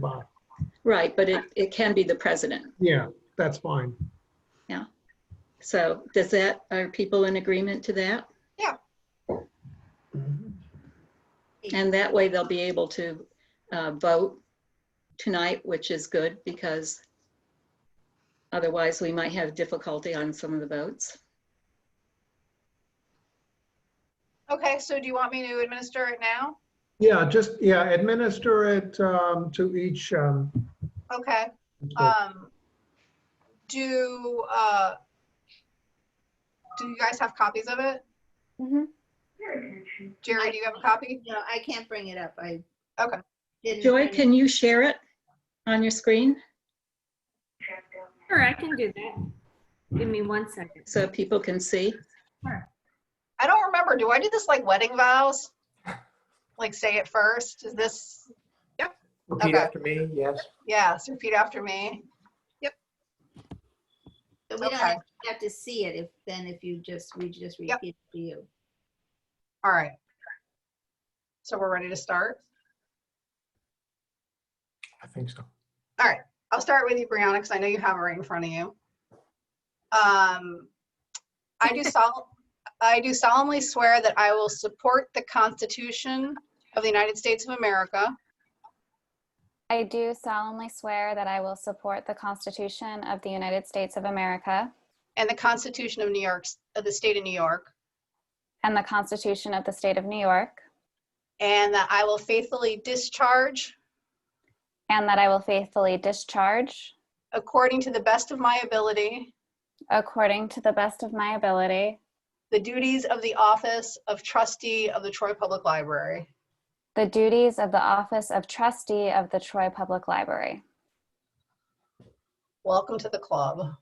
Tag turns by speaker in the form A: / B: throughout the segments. A: by.
B: Right, but it, it can be the president.
A: Yeah, that's fine.
B: So does that, are people in agreement to that? Mm-hmm. And that way they'll be able to uh, vote tonight, which is good because otherwise we might have difficulty on some of the votes.
C: Okay, so do you want me to administer it now?
A: Yeah, just, yeah, administer it um, to each. um,
C: Okay,
A: to-
C: um, do, uh, do you guys have copies of it? Jerry, do you have a copy?
D: No, I can't bring it up. I.
C: Okay.
D: didn't
B: Joy,
D: print it.
B: can you share it on your screen
E: Sure, I can do that. Give me one second.
B: so people can see?
C: I don't remember. Do I do this like wedding vows? Like say it first? Is this,
F: Repeat
C: Okay.
F: after me, yes.
C: yes, repeat after me?
D: But We don't
C: okay.
D: actually have to see it if, then if you just, we just
C: Yep.
D: repeat it to you.
C: All right. So we're ready to start?
F: I think so.
C: I'll start with you, Brianna, because I know you have it right in front of you. Um, I do sol- I do solemnly swear that I will support the Constitution of the United States of America
G: I do solemnly swear that I will support the Constitution of the United States of America
C: and the Constitution of New York, of the State of New York,
G: and the Constitution of the State of New York,
C: and that I will faithfully discharge,
G: and that I will faithfully discharge,
C: according to the best of my ability,
G: according to the best of my ability,
C: the duties of the office of trustee of the Troy Public Library.
G: the duties of the office of trustee of the Troy Public Library.
C: Welcome to the club.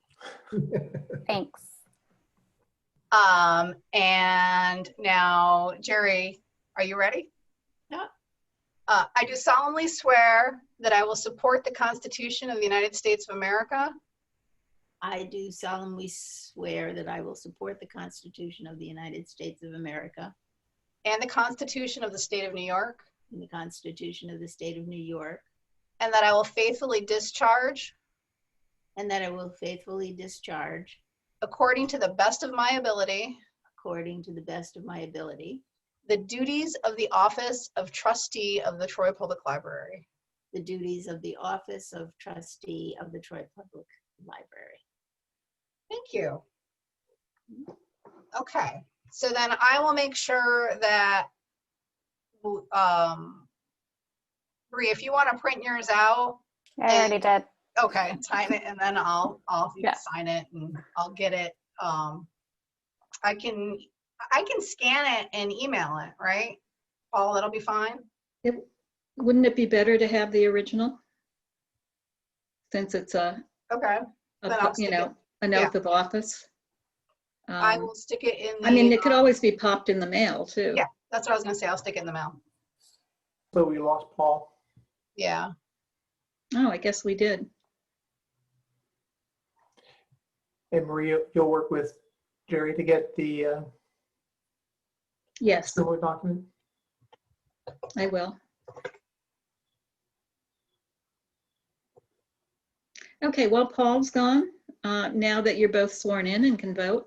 G: Thanks.
C: Um, and now, Jerry, are you ready? Yeah. Uh, I do solemnly swear that I will support the Constitution of the United States of America
D: I do solemnly swear that I will support the Constitution of the United States of America
C: and the Constitution of the State of New York,
D: and the Constitution of the State of New York,
C: and that I will faithfully discharge,
D: and that I will faithfully discharge,
C: according to the best of my ability,
D: according to the best of my ability,
C: the duties of the office of trustee of the Troy Public Library.
D: the duties of the office of trustee of the Troy Public Library.
C: Thank you. Okay, so then I will make sure that, um, Bree, if you want to print yours out,
G: I already did.
C: okay, sign it, and then I'll, I'll
G: Yeah.
C: sign it and I'll get it. Um, I can, I can scan it and email it, right? Paul, that'll be fine?
B: It- Wouldn't it be better to have the original? Since it's a,
C: Okay,
B: a
C: Then I'll
B: po- you
C: stick
B: know, an
C: yeah.
B: oath of office?
C: I
B: Um,
C: will stick it in the.
B: I mean, it could
C: uh,
B: always be popped in the mail too.
C: Yeah. That's what I was gonna say, I'll stick it in the mail.
F: So we lost Paul.
C: Yeah,
B: Oh, I guess we did.
F: And Maria, you'll work with Jerry to get the uh,
B: Yes,
F: similar document?
B: I will. Okay, well, Paul's gone. Uh, Now that you're both sworn in and can vote,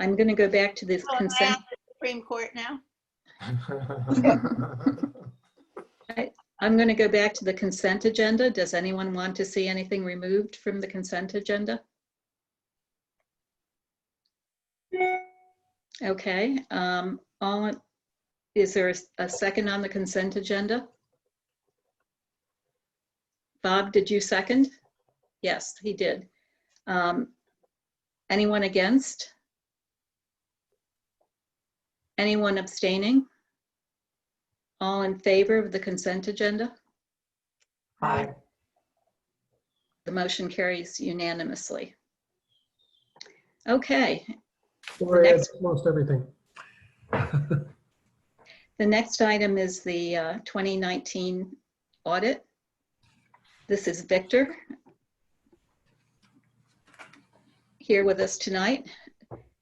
B: I'm going to go back to this
D: So
C: Oh,
D: am I
B: consent.
D: on the Supreme Court now?
B: I'm going to go back to the consent agenda. Does anyone want to see anything removed from the consent agenda? Okay, um, all, is there a- a second on the consent agenda? Bob, did you second? Yes, he did. Um, Anyone against? Anyone abstaining? All in favor of the consent agenda?
F: Hi.
B: The motion carries unanimously. Okay,
A: Gloria has
B: next-
A: Most everything.
B: the next item is the uh, 2019 audit. This is Victor here with us tonight.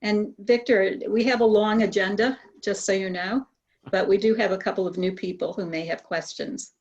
B: And Victor, we have a long agenda, just so you know, but we do have a couple of new people who may have questions.